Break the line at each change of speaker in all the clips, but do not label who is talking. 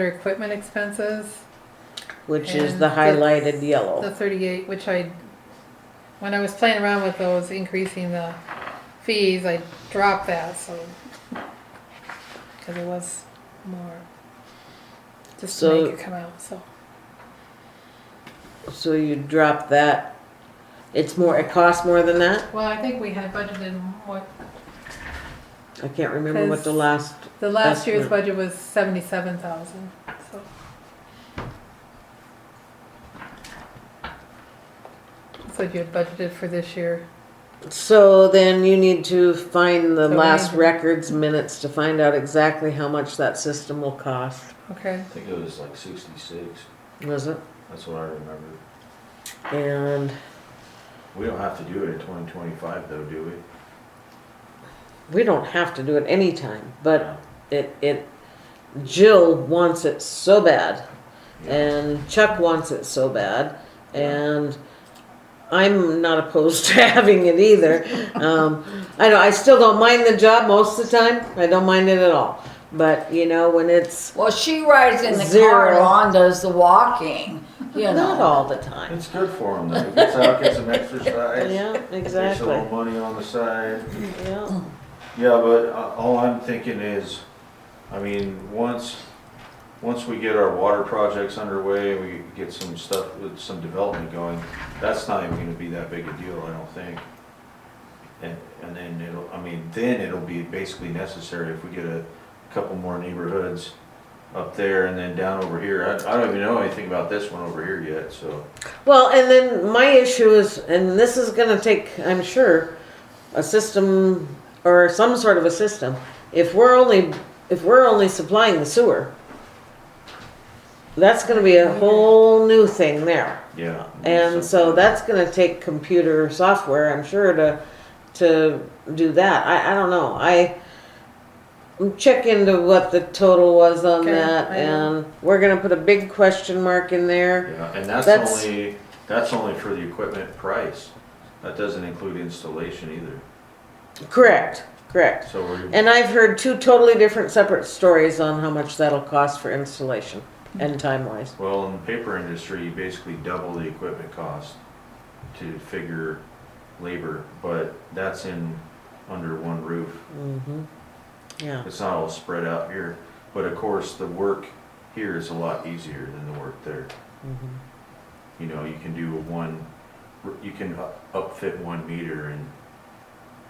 Their equipment expenses,
which is
And
the
the-
highlighted
the
yellow.
thirty-eight, which I, when I was playing around with those, increasing the fees, I dropped that, so. Cause it was more, just to
So-
make it come out, so.
So you drop that. It's more, it costs more than that?
Well, I think we had budgeted what,
I can't remember what the
Because-
last,
the last
That's
year's
right.
budget was seventy-seven thousand, so. So you had budgeted for this year.
so then you need to find the
So we need
last
to-
records minutes to find out exactly how much that system will cost.
Okay,
I think it was like sixty-six,
Was it?
that's what I remember.
And
We don't have to do it in twenty twenty-five though, do we?
we don't have to do it anytime, but it it Jill wants it so bad
Yeah.
and Chuck wants it so bad and I'm not opposed to having it either. Um, I know I still don't mind the job most of the time. I don't mind it at all. But you know when it's
Well, she rides in the car
Zero.
and Lon does the walking, you
not
know.
all the time.
It's good for them though, gets out, gets some exercise.
Yeah,
Makes a
exactly.
little money on the side.
Yeah.
Yeah, but uh, all I'm thinking is, I mean, once, once we get our water projects underway, we get some stuff with some development going, that's not even gonna be that big a deal, I don't think. And, and then it'll, I mean, then it'll be basically necessary if we get a couple more neighborhoods up there and then down over here. I, I don't even know anything about this one over here yet, so.
Well, and then my issue is, and this is going to take, I'm sure, a system or some sort of a system. If we're only if we're only supplying the sewer, that's going to be a
Mm-hmm.
whole new thing there.
Yeah.
And so that's going to take computer software, I'm sure, to to do that. I, I don't know. I check into what the total was on
Okay,
that,
I know.
and we're going to put a big question mark in there.
Yeah, and that's
That's-
only, that's only for the equipment price. That doesn't include installation either.
Correct, correct.
So we're,
And I've heard two totally different separate stories on how much that'll cost for installation and time wise.
well, in the paper industry, you basically double the equipment cost to figure labor, but that's in, under one roof.
Mm-hmm. Yeah,
It's not all spread out here, but of course, the work here is a lot easier than the work there.
mhm.
You know, you can do one, you can up- upfit one meter and,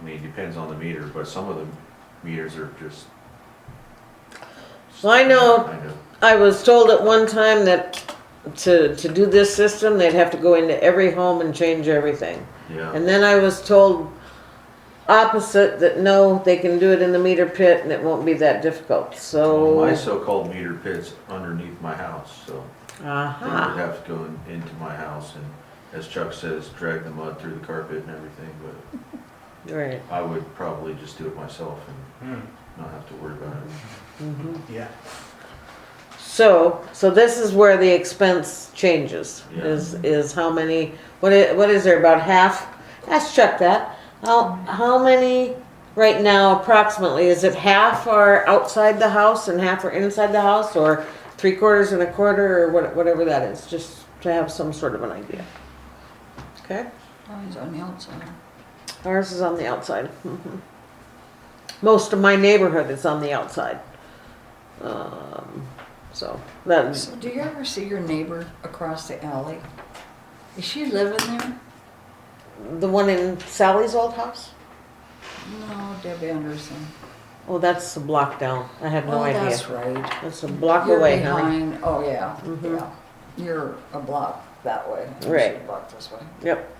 I mean, it depends on the meter, but some of the meters are just.
Well, I know-
Kind of.
I was told at one time that to, to do this system, they'd have to go into every home and change everything.
Yeah,
And then I was told opposite that no, they can do it in the meter pit and it won't be that difficult,
Well,
so.
my so-called meter pit's underneath my house, so they would
Aha.
have to go in- into my house and, as Chuck says, drag the mud through the carpet and everything, but
Right.
I would probably just do it myself and not have to worry about it.
Yeah.
So, so this is where the expense changes,
Yeah.
is, is how many, what is, what is there, about half? Let's check that. How, how many, right now approximately, is it half are outside the house and half are inside the house? Or three quarters and a quarter or what- whatever that is, just to have some sort of an idea. Okay?
Oh, he's on the outside.
Ours is on the outside. Mhm. Most of my neighborhood is on the outside. Um, so that's,
So do you ever see your neighbor across the alley? Is she living there?
The one in Sally's old house?
No, Deb Anderson.
Oh, that's a block down. I have no
Oh,
idea.
that's right.
That's a block
You're
away, honey.
behind. Oh yeah,
Mhm.
yeah. You're a block that way. and she's
Right.
A block this way.
Yep.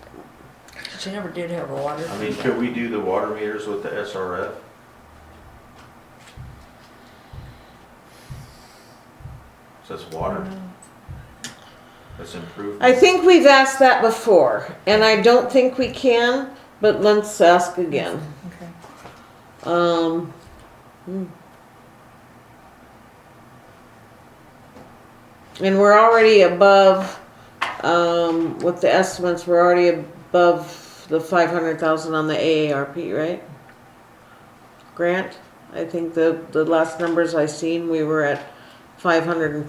She never did have a water.
I mean,
heater.
could we do the water meters with the SRF? So that's water. That's improvement.
I think we've asked that before, and I don't think we can, but let's ask again.
okay.
Um, hmm. and we're already above, um, with the estimates, we're already above the five hundred thousand on the AARP, right? Grant, I think the, the last numbers I seen, we were at five hundred and